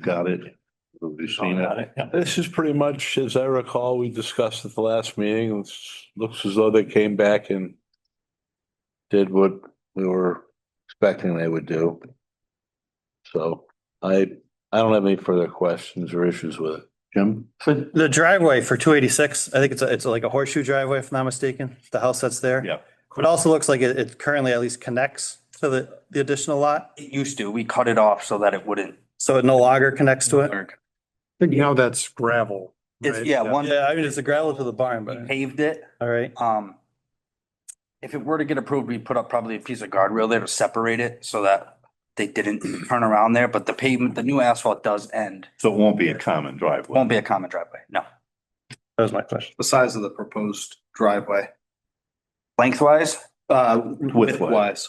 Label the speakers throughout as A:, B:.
A: Got it. Have you seen it?
B: This is pretty much, as I recall, we discussed at the last meeting, it's, looks as though they came back and did what we were expecting they would do. So I, I don't have any further questions or issues with it. Jim?
C: So the driveway for two eighty-six, I think it's, a- it's like a horseshoe driveway, if I'm not mistaken, the house that's there.
A: Yeah.
C: But It also looks like it, it currently at least connects to the, the additional lot,
D: It used to, we cut it off so that it wouldn't
C: so it no longer connects to it.
D: work.
E: think now that's gravel.
D: It's,
E: right?
D: yeah, one,
C: Yeah, I mean, it's a gravel to the barn,
D: we
C: but,
D: paved it,
C: all right,
D: um. If it were to get approved, we put up probably a piece of guardrail there to separate it so that they didn't turn around there, but the pavement, the new asphalt does end.
A: So it won't be a common driveway.
D: Won't be a common driveway, no.
C: that was my question.
F: the size of the proposed driveway,
D: Lengthwise,
F: uh,
A: Width-wise.
F: width-wise.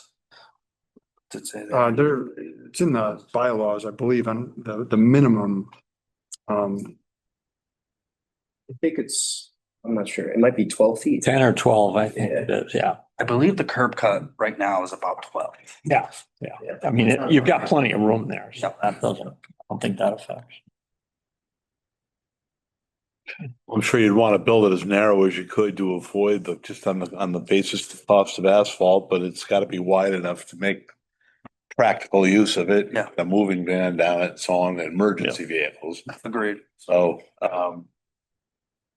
D: to say that.
E: Uh, there, it's in the bylaws, I believe, on the, the minimum. Um,
G: I think it's, I'm not sure. It might be twelve feet.
H: Ten or twelve, I think it is, yeah.
D: I believe the curb cut right now is about twelve.
H: Yeah, yeah. I mean, it- you've got plenty of room there, so that doesn't, I don't think that affects.
B: I'm sure you'd want to build it as narrow as you could to avoid the, just on the, on the basis of cost of asphalt, but it's got to be wide enough to make practical use of it.
D: Yeah.
B: A moving van down it, so on, emergency vehicles.
D: Agreed.
B: So, um,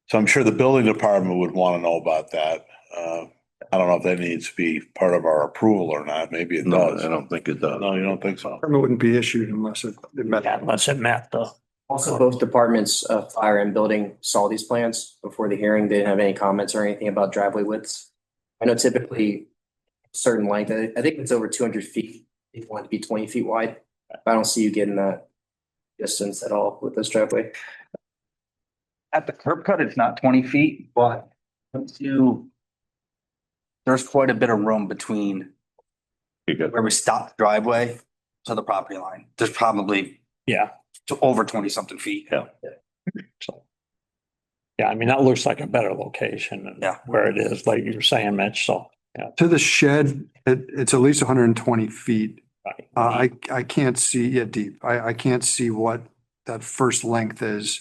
B: so I'm sure the building department would want to know about that. Uh, I don't know if that needs to be part of our approval or not. Maybe it
A: No,
B: does.
A: I don't think it does.
B: No, you don't think so?
E: permit wouldn't be issued unless it it met.
H: Yeah, Unless it met the,
G: Also, both departments, uh, fire and building saw these plans before the hearing. They didn't have any comments or anything about driveway widths. I know typically certain length, I, I think it's over two hundred feet. They want it to be twenty feet wide. I don't see you getting that distance at all with this driveway.
D: At the curb cut, it's not twenty feet, but once you. There's quite a bit of room between
A: You got
D: where we stop the driveway to the property line. There's probably
H: yeah,
D: to over twenty something feet.
H: so. Yeah, I mean, that looks like a better location than
D: Yeah.
H: where it is, like you were saying, Mitch, so.
E: To the shed, it, it's at least hundred and twenty feet.
H: right.
E: Uh, I, I can't see, yeah, deep. I, I can't see what that first length is.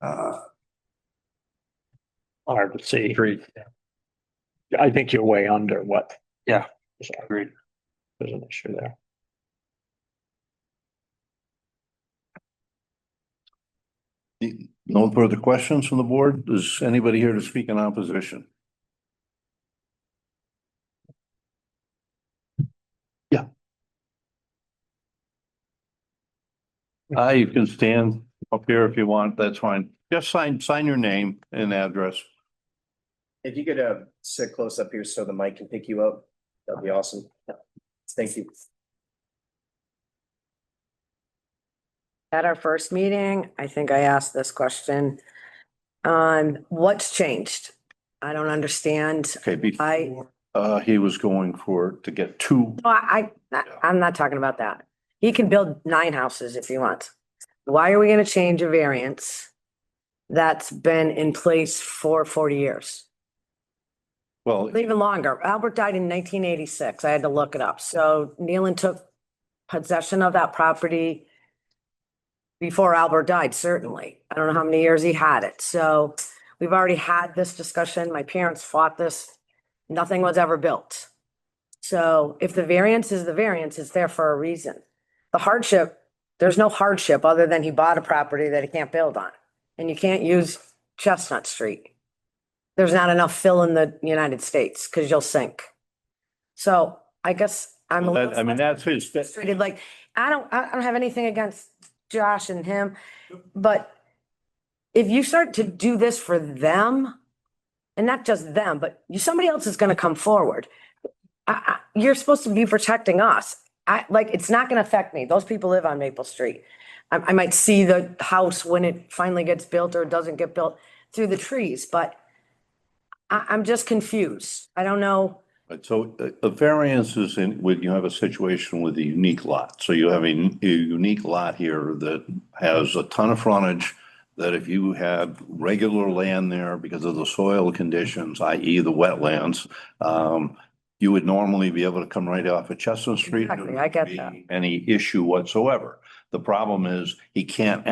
E: Uh,
H: Hard to see. I think you're way under what.
D: Yeah.
H: So
D: Agreed.
H: There's an issue there.
A: No further questions from the board? Is anybody here to speak in opposition? Yeah. Uh, you can stand up here if you want. That's fine. Just sign, sign your name and address.
G: If you could, uh, sit close up here so the mic can pick you up, that'd be awesome. Thank you.
I: At our first meeting, I think I asked this question. Um, what's changed? I don't understand.
A: Okay,
I: I-
A: before, uh, he was going for, to get two.
I: No, I, I, I'm not talking about that. He can build nine houses if he wants. Why are we gonna change a variance that's been in place for forty years?
A: Well,
I: Even longer. Albert died in nineteen eighty-six. I had to look it up. So Nealon took possession of that property before Albert died, certainly. I don't know how many years he had it. So we've already had this discussion. My parents fought this. Nothing was ever built. So if the variance is the variance, it's there for a reason. The hardship, there's no hardship other than he bought a property that he can't build on. And you can't use Chestnut Street there's not enough fill in the United States because you'll sink. So I guess I'm a
A: that- I mean,
I: little
A: that's his, that's
I: frustrated, like, I don't, I I don't have anything against Josh and him, but if you start to do this for them, and not just them, but you, somebody else is gonna come forward. I, I, you're supposed to be protecting us. I, like, it's not gonna affect me. Those people live on Maple Street. I, I might see the house when it finally gets built or doesn't get built through the trees, but I, I'm just confused. I don't know.
A: Right, so uh, a- a variance is in, when you have a situation with a unique lot. So you have a, n- a unique lot here that has a ton of frontage that if you had regular land there because of the soil conditions, i.e. the wetlands, um, you would normally be able to come right off of Chestnut Street. and there
I: Exactly, I get
A: wouldn't
I: that.
A: be Any issue whatsoever. The problem is he can't